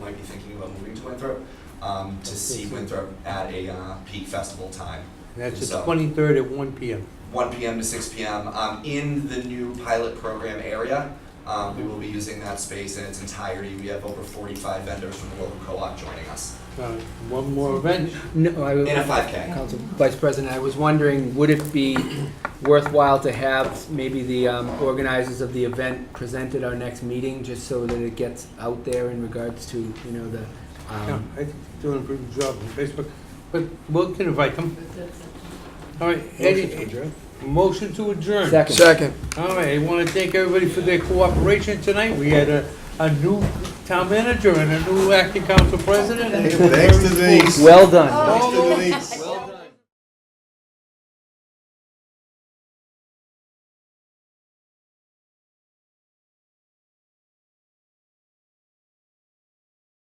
about moving to Winthrop, um, to see Winthrop at a uh, peak festival time. That's the So- 23rd at 1 PM. 1 p.m. to 6 p.m. Um, in the new pilot program area. Um, we will be using that space in its entirety. We have over 45 vendors from the local co-op joining us Uh, One more event. No, I, in a was- 5K. Council Vice President, I was wondering, would it be worthwhile to have maybe the um, organizers of the event present at our next meeting, just so that it gets out there in regards to, you know, the, Yeah, um, I think you're doing a pretty good job on Facebook, but we can invite them. All right, Eddie, motion to adjourn. second. All right, I want to thank everybody for their cooperation tonight. We had a, a new town manager and a new acting council president. and they were Thanks to very cool. Denise. Well done. All Thanks to those- Denise.